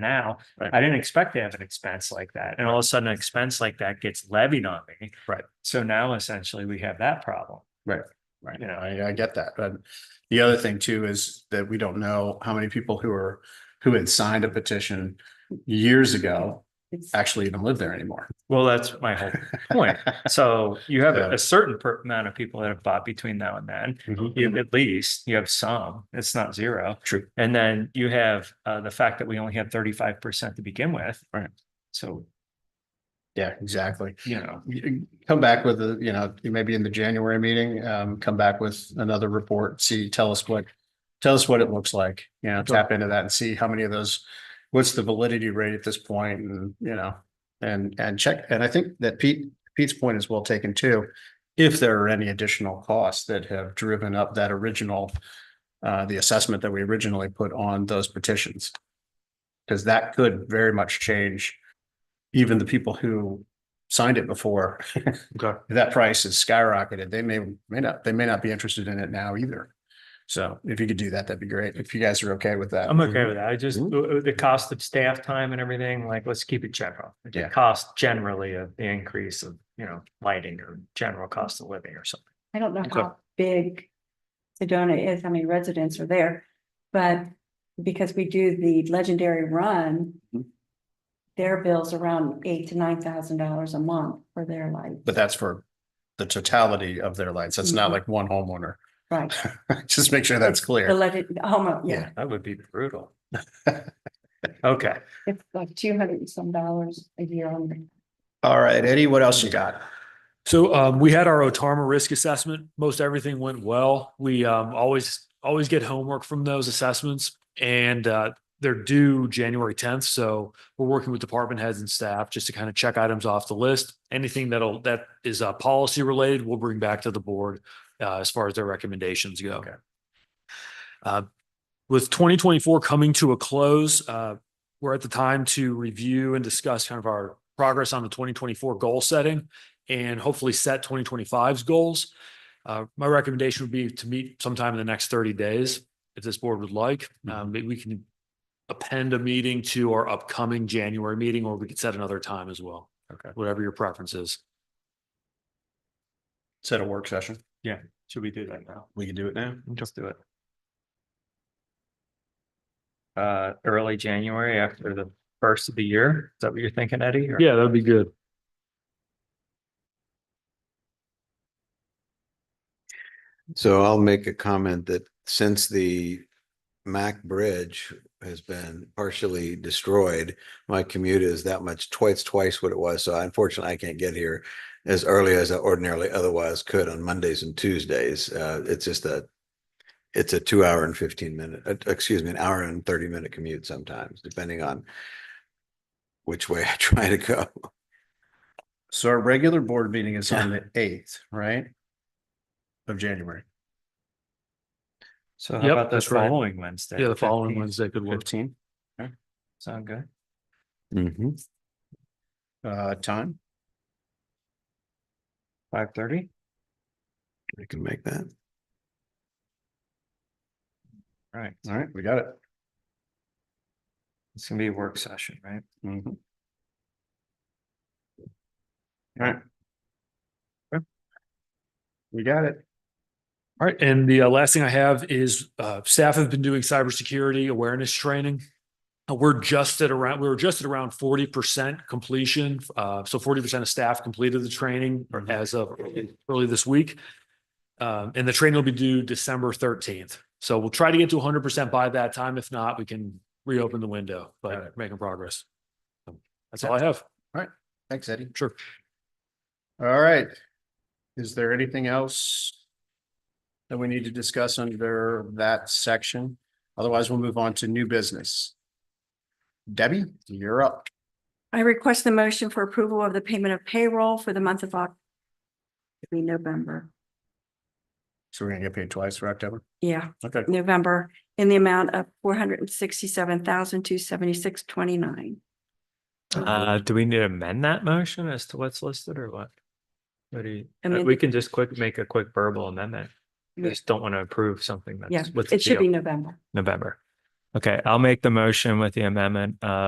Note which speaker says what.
Speaker 1: now.
Speaker 2: Right.
Speaker 1: I didn't expect to have an expense like that. And all of a sudden, an expense like that gets levied on me.
Speaker 2: Right.
Speaker 1: So now essentially we have that problem.
Speaker 2: Right,
Speaker 1: You know.
Speaker 2: I, I get that, but the other thing too is that we don't know how many people who are, who had signed a petition years ago actually even live there anymore.
Speaker 1: Well, that's my whole point. So you have
Speaker 2: Yeah.
Speaker 1: a certain per- amount of people that have bought between now and then. You, at least you have some, it's not zero.
Speaker 2: Mm-hmm. True.
Speaker 1: And then you have uh, the fact that we only had thirty-five percent to begin with.
Speaker 2: Right.
Speaker 1: So,
Speaker 2: Yeah, exactly.
Speaker 1: you know,
Speaker 2: You- Come back with, a you know, maybe in the January meeting, um, come back with another report, see, tell us what, tell us what it looks like, you know, tap into that and see how many of those, what's the validity rate at this point and, you know, and, and check. And I think that Pete, Pete's point is well taken too. If there are any additional costs that have driven up that original, uh, the assessment that we originally put on those petitions. Because that could very much change even the people who signed it before.
Speaker 1: Okay.
Speaker 2: That price is skyrocketed. They may, may not, they may not be interested in it now either. So if you could do that, that'd be great. If you guys are okay with that.
Speaker 1: I'm okay with that. I just, uh,
Speaker 2: Mhm.
Speaker 1: the the cost of staff time and everything, like, let's keep it general. Like,
Speaker 2: Yeah.
Speaker 1: The cost generally of the increase of, you know, lighting or general cost of living or something.
Speaker 3: I don't know
Speaker 1: Okay.
Speaker 3: how big Sedona is, how many residents are there, but because we do the legendary run.
Speaker 2: Mhm.
Speaker 3: Their bills around eight to nine thousand dollars a month for their light,
Speaker 2: But that's for the totality of their lights. That's not
Speaker 3: Mhm.
Speaker 2: like one homeowner.
Speaker 3: right?
Speaker 2: Just make sure that's
Speaker 3: The
Speaker 2: clear.
Speaker 3: legend, oh, yeah,
Speaker 1: That would be brutal. Okay.
Speaker 3: it's like two hundred and some dollars a year on the
Speaker 2: All right, Eddie, what else you got?
Speaker 4: So um, we had our Otarma risk assessment. Most everything went well. We um, always always get homework from those assessments, and uh, they're due January tenth. So we're working with department heads and staff just to kind of check items off the list. Anything that'll that is uh, policy related, we'll bring back to the board uh, as far as their recommendations go.
Speaker 2: Okay.
Speaker 4: Uh, with twenty twenty four coming to a close, uh, we're at the time to review and discuss kind of our progress on the twenty twenty four goal setting and hopefully set 2025's goals. Uh, my recommendation would be to meet sometime in the next thirty days, if this board would like. Um, maybe we can append a meeting to our upcoming January meeting, or we could set another time as well.
Speaker 2: Okay.
Speaker 4: Whatever your preference is.
Speaker 2: Set a work session.
Speaker 1: Should we do that now?
Speaker 2: We can do it now.
Speaker 1: Just do it. Uh, early January after the first of the year. Is that what you're thinking, Eddie? Or-
Speaker 4: that'd be good.
Speaker 5: So I'll make a comment that since the Mac Bridge has been partially destroyed, my commute is that much, twice, twice what it was. So unfortunately, I can't get here as early as I ordinarily otherwise could on Mondays and Tuesdays. Uh, it's just a, it's a two hour and fifteen minute, uh, excuse me, an hour and thirty minute commute sometimes, depending on which way I try to go.
Speaker 2: So our regular board meeting is on the eighth, right? Of January,
Speaker 1: So
Speaker 4: Yep,
Speaker 1: how about the
Speaker 4: that's right.
Speaker 1: following Wednesday?
Speaker 4: Yeah, the following
Speaker 1: 15th?
Speaker 4: Wednesday could work.
Speaker 2: fifteen,
Speaker 1: Sound good?
Speaker 2: uh, time.
Speaker 1: Five thirty?
Speaker 5: I can make that.
Speaker 1: Right.
Speaker 2: All right, we got it.
Speaker 1: It's gonna be a work session, right?
Speaker 2: Mhm. All right. Okay. We got it.
Speaker 4: All right, and the uh, last thing I have is uh, staff have been doing cybersecurity awareness training. Uh, We're just at around, we were just at around forty percent completion. Uh, so forty percent of staff completed the training or as of early this week. Um, and the training will be due December thirteenth. So we'll try to get to hundred percent by that time. If not, we can reopen the window,
Speaker 2: Got it.
Speaker 4: but making progress. That's all I have.
Speaker 2: Thanks, Eddie.
Speaker 4: Sure.
Speaker 2: All right. Is there anything else? That we need to discuss under that section? Otherwise, we'll move on to new business. Debbie, you're up.
Speaker 3: I request the motion for approval of the payment of payroll for the month of Oc- be November,
Speaker 2: So we're gonna get paid twice for October?
Speaker 3: yeah,
Speaker 2: Okay.
Speaker 3: November, in the amount of four hundred and sixty-seven thousand, two seventy-six, twenty-nine.
Speaker 1: Uh, do we need to amend that motion as to what's listed or what? What do you, uh,
Speaker 3: Amend
Speaker 1: we
Speaker 3: it.
Speaker 1: can just quick, make a quick verbal amendment. I
Speaker 3: Yeah.
Speaker 1: Just don't want to approve something
Speaker 3: Yeah,
Speaker 1: that's with
Speaker 3: it should be November.
Speaker 1: November. Okay, I'll make the motion with the amendment uh